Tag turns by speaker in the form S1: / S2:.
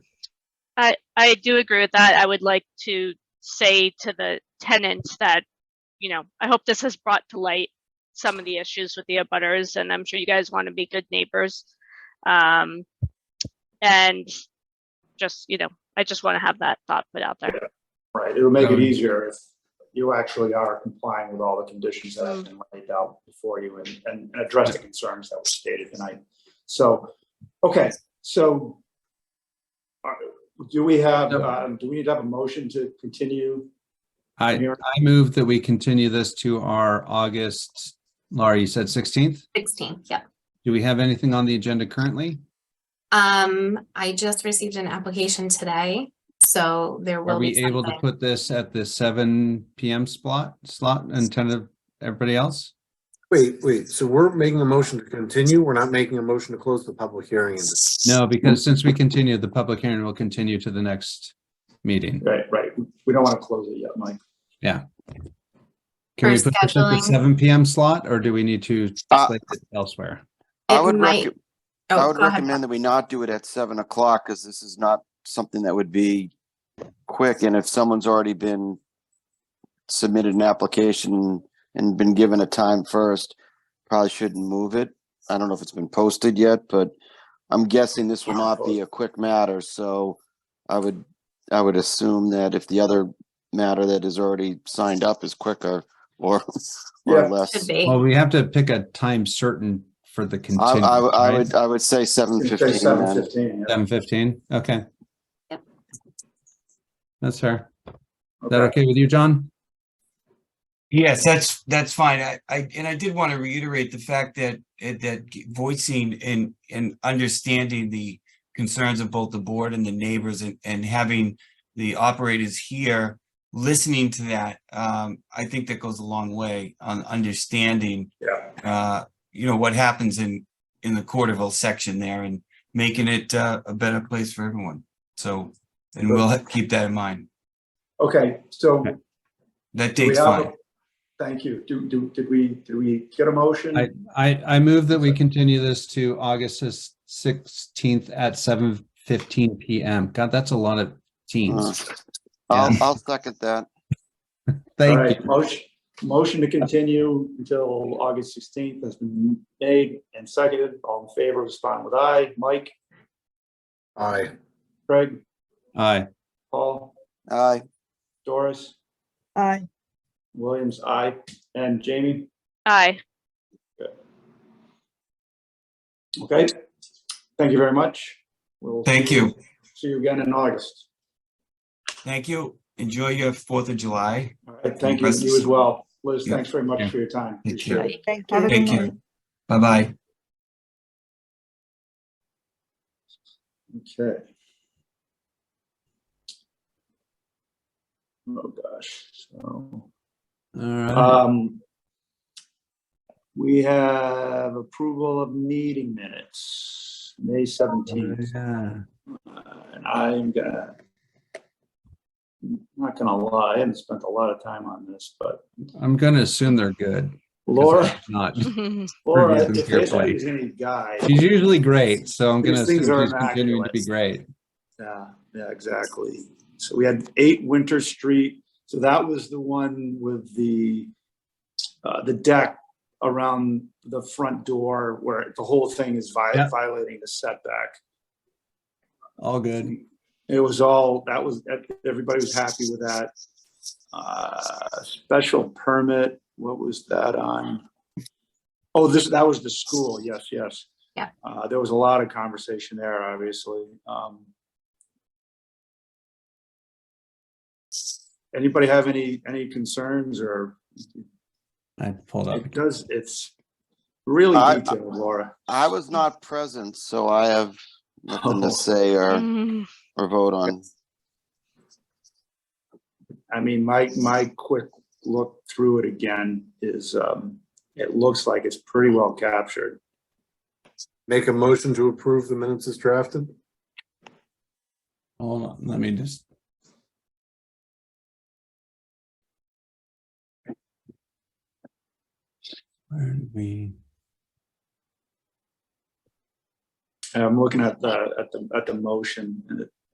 S1: I, I do agree with that. I would like to say to the tenants that, you know, I hope this has brought to light some of the issues with the abutters, and I'm sure you guys want to be good neighbors. Um, and just, you know, I just want to have that thought put out there.
S2: Right, it'll make
S3: That
S2: it
S3: would-
S2: easier if you actually are complying with all the conditions that have been laid out before you and, and and address the concerns that were stated tonight. So, okay, so uh, do we have,
S3: Yep.
S2: uh, do we need to have a motion to continue
S3: I,
S2: here?
S3: I move that we continue this to our August, Laura, you said 16th?
S4: 16th, yep.
S3: Do we have anything on the agenda currently?
S4: Um, I just received an application today, so there
S3: Are
S4: will be
S3: we able to
S4: something.
S3: put this at the 7 PM slot, slot and tentative, everybody else?
S5: Wait, wait, so we're making a motion to continue? We're not making a motion to close the public hearing? is it?
S3: No, because since we continue, the public hearing will continue to the next meeting.
S2: Right, right, we don't want to close it yet, Mike.
S3: Can we
S4: For
S3: put this at the
S4: scheduling.
S3: 7 PM slot or do we need to
S6: Uh,
S3: slate it elsewhere?
S6: I
S4: It
S6: would
S4: might-
S6: recom-
S4: Oh,
S6: I would
S4: go ahead,
S6: recommend that we not do it at seven o'clock because this is not something that would be quick. And if someone's already been submitted an application and been given a time first, probably shouldn't move it. I don't know if it's been posted yet, but I'm guessing this will not be a quick matter. So I would, I would assume that if the other matter that is already signed up is quicker or,
S2: Yeah.
S6: or
S4: Bob. Should
S6: less.
S4: be.
S3: Well, we have to pick a time certain for the
S6: I,
S3: continue.
S6: I, would- I
S3: right?
S6: would, I would say seven fifteen.
S2: Seven fifteen.
S3: 7:15, okay.
S4: Yep.
S3: That's fair. Is that okay with you, John?
S7: Yes, that's, that's fine. I, I, and I did want to reiterate the fact that, eh, that voicing and, and understanding the concerns of both the board and the neighbors and, and having the operators here, listening to that, um, I think that goes a long way on understanding,
S2: Yeah,
S7: uh, you know, what happens in, in the Corderville section there and making it, uh, a better place for everyone. So, and we'll keep that in mind.
S2: okay, so. do
S7: That
S2: we
S7: date's
S2: have a-
S7: fine.
S2: Thank you. Do, do, did we, did we get a motion?
S3: I, I move that we continue this to August s- 16th at 7:15 PM. God, that's a lot of
S6: Uh,
S3: teams.
S6: I'll, I'll second that.
S2: All
S3: Thank
S2: right,
S3: you.
S2: motion, motion to continue until August sixteenth has been made and seconded. All in favor, respond with aye. Mike,
S5: Aye.
S2: Craig,
S3: Aye.
S2: Paul,
S6: Aye.
S2: Doris,
S8: Aye.
S2: Williams, aye, and Jamie.
S1: Aye.
S2: Okay, thank you very much. We'll
S7: Thank you.
S2: See you again in August.
S7: Thank you. Enjoy your Fourth of July.
S2: All right, thank you, you as well. Liz,
S7: Yeah.
S2: thanks very much
S3: Yeah.
S2: for your time.
S7: Thank you.
S2: Appreciate it.
S8: Thank
S7: a
S8: you.
S7: good Thank you. night. Bye-bye.
S2: Okay. Oh, gosh, so.
S3: All right.
S2: Um, we have approval of meeting minutes, May seventeenth,
S3: Yeah.
S2: and I'm gonna I'm not gonna lie, I haven't spent a lot of time on this, but
S3: I'm going to assume they're good. 'cause
S2: Laura,
S3: I'm Not.
S2: Laura,
S3: Reviewing
S2: if
S3: your
S2: there's
S3: plate.
S2: any guy,
S3: She's usually great, so I'm going to
S2: These things
S3: assume
S2: are
S3: she's continuing to be
S2: immaculate.
S3: great.
S2: yeah, yeah, exactly. So we had eight Winter Street, so that was the one with the uh, the deck around the front door where the whole thing is vi-
S3: Yeah.
S2: violating the setback.
S3: All good.
S2: It was all, that was, everybody was happy with that. Uh, Special permit, what was that on? Oh, this, that was the school, yes, yes.
S4: Yeah.
S2: Uh, There was a lot of conversation there, obviously. Um, Anybody have any, any concerns or,
S3: I pulled up.
S2: it does, it's really
S6: I-
S2: detailed, Laura.
S6: I was not present, so I have nothing
S2: Oh.
S6: to say or,
S1: Mm.
S6: or vote on.
S2: I mean, my, my quick look through it again is, um, it looks like it's pretty well captured.
S5: Make a motion to approve the minutes as drafted?
S3: Hold on, let me just. Where did we?
S2: And I'm looking at the, at the, at the motion and it